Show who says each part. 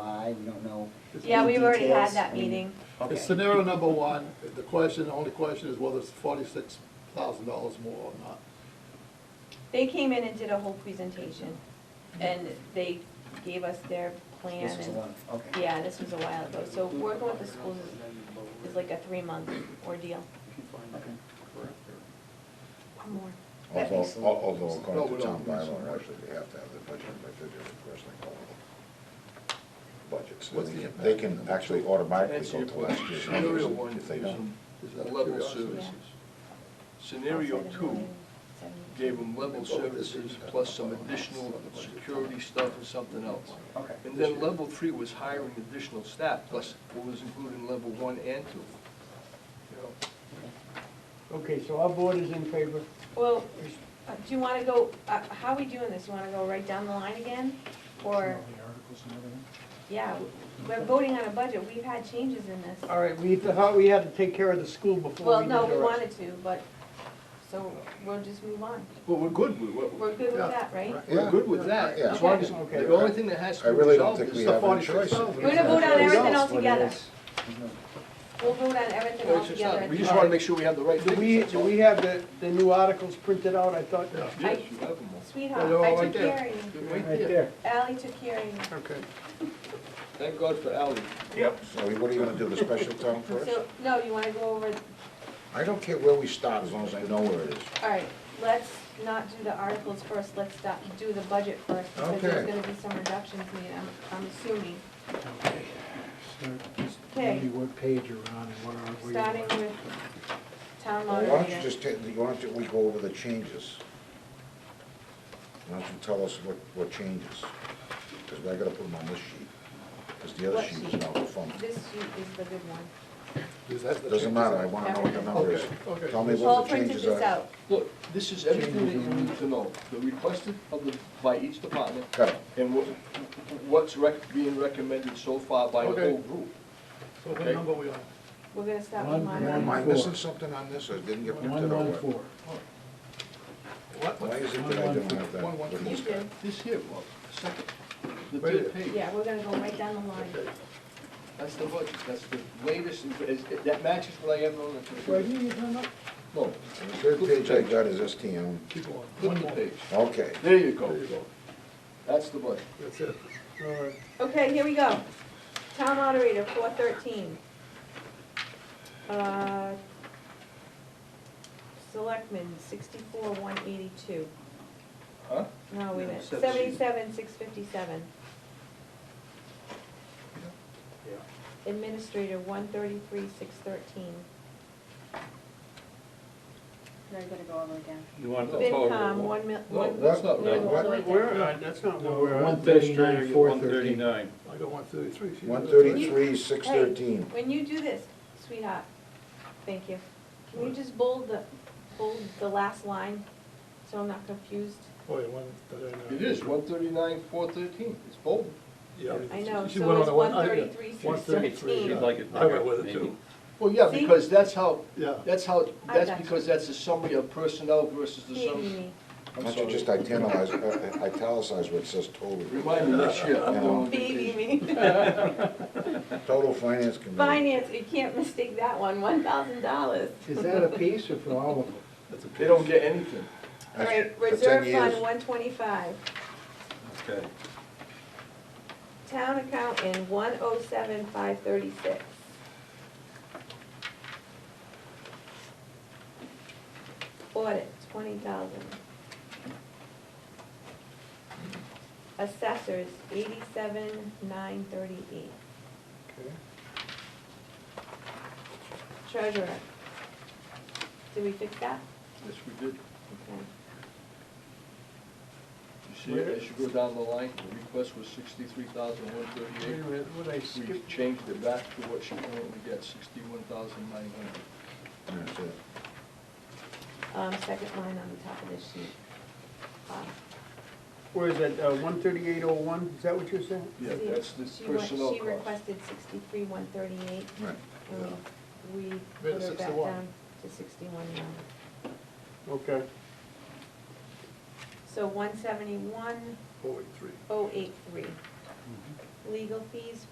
Speaker 1: I don't know.
Speaker 2: Yeah,
Speaker 1: any
Speaker 2: we've already had
Speaker 1: details.
Speaker 2: that
Speaker 1: I mean,
Speaker 2: meeting.
Speaker 1: Okay.
Speaker 3: It's Scenario number one, the question, the only question is whether it's forty-six thousand dollars more or not.
Speaker 2: They came in and did a whole presentation, and they gave us their plan.
Speaker 1: This was the
Speaker 2: and-
Speaker 1: one, okay.
Speaker 2: Yeah, this was a while ago, so working with the schools is, is like a three-month ordeal.
Speaker 1: Okay.
Speaker 2: Or more.
Speaker 1: That makes
Speaker 4: Although,
Speaker 1: a lot-
Speaker 4: although
Speaker 3: No,
Speaker 4: according
Speaker 3: we
Speaker 4: to town
Speaker 3: don't.
Speaker 4: bylaw, actually, they have to have the budget, but they're just requesting all of the budgets.
Speaker 3: What's
Speaker 4: They
Speaker 3: the
Speaker 4: can- They
Speaker 3: impact?
Speaker 4: can actually automatically
Speaker 5: Answer
Speaker 4: go
Speaker 5: your
Speaker 4: to last
Speaker 5: question.
Speaker 4: year's
Speaker 5: Scenario
Speaker 4: numbers
Speaker 5: one
Speaker 4: if they
Speaker 5: is,
Speaker 4: don't.
Speaker 3: Just out of
Speaker 5: level
Speaker 3: curiosity.
Speaker 5: services. Scenario two gave them level services plus some additional security stuff and something else.
Speaker 1: Okay.
Speaker 5: And then level three was hiring additional staff, plus what was included in level one and two. You know,
Speaker 6: Okay, so our board is in favor.
Speaker 2: Well, uh, do you wanna go, uh, how are we doing this? You wanna go right down the line again? Or, yeah, we're voting on a budget. We've had changes in this.
Speaker 6: All right, we thought we had to take care of the school before
Speaker 2: Well,
Speaker 6: we did
Speaker 2: no, we
Speaker 6: the rest.
Speaker 2: wanted to, but, so we'll just move on.
Speaker 5: But we're good, with what-
Speaker 2: We're good with that, right?
Speaker 4: Yeah.
Speaker 5: we're good with that,
Speaker 4: Yeah.
Speaker 5: as long as,
Speaker 6: Okay.
Speaker 5: the only thing that has
Speaker 4: I
Speaker 5: to be
Speaker 4: really don't
Speaker 5: resolved
Speaker 4: think
Speaker 5: is
Speaker 4: we
Speaker 5: the
Speaker 4: have any
Speaker 5: forty-six
Speaker 4: choice.
Speaker 5: thousand.
Speaker 2: We're gonna vote on everything
Speaker 1: That's what it
Speaker 2: altogether.
Speaker 1: is. There's no-
Speaker 2: We'll vote on everything all together.
Speaker 5: We just wanna make sure we have the right
Speaker 6: Do
Speaker 5: things.
Speaker 6: we,
Speaker 5: that's
Speaker 6: do
Speaker 5: all.
Speaker 6: we have the, the new articles printed out? I thought,
Speaker 5: Yeah,
Speaker 6: right
Speaker 5: Yes, you have them all.
Speaker 2: Sweetheart,
Speaker 5: They're all
Speaker 2: I
Speaker 5: right
Speaker 2: took
Speaker 5: there.
Speaker 2: care of you.
Speaker 5: They're right there.
Speaker 6: there.
Speaker 2: Ally took care of you.
Speaker 6: Okay.
Speaker 5: Thank God for Ally.
Speaker 4: So what are you gonna do, the special town first?
Speaker 2: So, no, you wanna go over,
Speaker 4: I don't care where we start, as long as I know where it is.
Speaker 2: all right, let's not do the articles first, let's stop, do the budget first, because there's
Speaker 4: Okay.
Speaker 2: gonna be some reductions made, I'm, I'm assuming.
Speaker 7: Okay, so just
Speaker 2: Okay.
Speaker 7: tell me what page you're on and what are we?
Speaker 2: Starting with town
Speaker 4: Why don't you
Speaker 2: moderator.
Speaker 4: just take, why don't you- we go over the changes? Why don't you tell us what, what changes? Because I gotta put them on this sheet, because the other
Speaker 2: What
Speaker 4: sheet is
Speaker 2: sheet?
Speaker 4: not the phone.
Speaker 2: This sheet is the good one.
Speaker 4: Doesn't matter, I wanna know what the number is.
Speaker 3: Okay, okay.
Speaker 4: Tell me
Speaker 2: Paul
Speaker 4: what the
Speaker 2: printed
Speaker 4: changes
Speaker 2: this
Speaker 4: are.
Speaker 2: out.
Speaker 5: Look, this is everything that you need to know, the requested of the, by each department,
Speaker 4: Got it.
Speaker 5: and what, what's rec, being recommended so far by the
Speaker 3: Okay.
Speaker 5: whole group.
Speaker 3: So what
Speaker 5: Okay.
Speaker 3: number we on?
Speaker 2: We're gonna stop with
Speaker 7: One,
Speaker 2: moderator.
Speaker 4: Am I
Speaker 7: Four.
Speaker 4: missing something on this, or it didn't get
Speaker 7: One,
Speaker 4: printed out?
Speaker 7: one, four.
Speaker 3: What,
Speaker 4: Why
Speaker 3: what?
Speaker 4: is it that I don't have that?
Speaker 5: One, one,
Speaker 4: with
Speaker 2: You
Speaker 4: me?
Speaker 2: did,
Speaker 5: This here, Bob, second, the
Speaker 3: Wait a minute.
Speaker 5: third page.
Speaker 2: yeah, we're gonna go right down the line.
Speaker 5: Okay. That's the budget, that's the latest, and- is- that matches what I have on the
Speaker 6: here,
Speaker 5: computer.
Speaker 6: you turn up?
Speaker 5: No,
Speaker 4: The third page I got is STM.
Speaker 3: Keep going.
Speaker 5: flip the page.
Speaker 4: Okay,
Speaker 5: There you go. That's the budget.
Speaker 3: That's it.
Speaker 6: All right.
Speaker 2: Okay, here we go. Town moderator, four thirteen. Uh, Selectmen, sixty-four, one eighty-two.
Speaker 5: Huh?
Speaker 2: No, wait a minute,
Speaker 5: Seven.
Speaker 2: seventy-seven, six fifty-seven. Administrator, one thirty-three, six thirteen.
Speaker 8: They're gonna go over again.
Speaker 9: You want the
Speaker 2: FinCom,
Speaker 9: total?
Speaker 2: one mil,
Speaker 5: No,
Speaker 2: one,
Speaker 5: that's not right.
Speaker 4: No. What?
Speaker 8: Wait,
Speaker 6: We're, uh, that's not where we're
Speaker 7: One
Speaker 6: at.
Speaker 7: thirty-nine, four
Speaker 9: One
Speaker 7: thirteen.
Speaker 9: thirty-nine.
Speaker 3: I got one thirty-three.
Speaker 4: one thirty-three, six thirteen.
Speaker 2: when you do this, sweetheart, thank you. Can you just bold the, bold the last line, so I'm not confused?
Speaker 3: Oh, yeah, one thirty-nine.
Speaker 5: It is, one thirty-nine, four thirteen, it's bold.
Speaker 2: I know,
Speaker 3: She
Speaker 2: so
Speaker 3: went on
Speaker 2: it's
Speaker 3: the one- I-
Speaker 2: 133,
Speaker 3: yeah,
Speaker 2: 613.
Speaker 3: yeah.
Speaker 9: She'd like it
Speaker 3: I went
Speaker 9: bigger,
Speaker 3: with it
Speaker 9: maybe.
Speaker 3: too.
Speaker 5: Well, yeah,
Speaker 2: See?
Speaker 5: because that's how,
Speaker 3: Yeah.
Speaker 5: that's how,
Speaker 2: I
Speaker 5: that's
Speaker 2: got you.
Speaker 5: because that's a summary of personnel versus the
Speaker 2: Baby
Speaker 5: summary.
Speaker 2: me.
Speaker 4: Why don't you just italicize, uh, italicize what says total?
Speaker 5: Remind me this year, I'm going on
Speaker 2: Baby
Speaker 5: vacation.
Speaker 2: me.
Speaker 4: Total finance committee.
Speaker 2: Finance, you can't mistake that one, one thousand dollars.
Speaker 7: Is that a piece or for all of them?
Speaker 5: They don't get anything.
Speaker 2: All right,
Speaker 4: For 10
Speaker 2: reserve fund,
Speaker 4: years.
Speaker 2: one twenty-five.
Speaker 9: Okay.
Speaker 2: Town account in one oh seven, five thirty-six. Audit, twenty thousand. Assessors, eighty-seven, nine thirty-eight.
Speaker 4: Okay.
Speaker 2: Treasurer. Did we fix that?
Speaker 5: Yes, we did.
Speaker 2: Okay.
Speaker 5: You see, as you go down the line, the request was sixty-three thousand one
Speaker 6: Wait a
Speaker 5: thirty-eight.
Speaker 6: minute, what I
Speaker 5: We
Speaker 6: skip?
Speaker 5: changed it back to what she currently gets, sixty-one thousand nine hundred.
Speaker 4: That's it.
Speaker 2: Um, second line on the top of this sheet. Um,
Speaker 6: Where is that, uh, one thirty-eight oh one? Is that what you're saying?
Speaker 5: Yeah,
Speaker 2: she-
Speaker 5: that's the
Speaker 2: she went-
Speaker 5: personnel
Speaker 2: She
Speaker 5: cost.
Speaker 2: requested sixty-three, one thirty-eight,
Speaker 4: Right.
Speaker 2: and we, we
Speaker 3: Made it
Speaker 2: put her back
Speaker 3: 61.
Speaker 2: down to sixty-one now.
Speaker 6: Okay.
Speaker 2: So one seventy-one,
Speaker 3: Forty-three.
Speaker 5: Mm-hmm.
Speaker 2: oh eight three. Legal fees,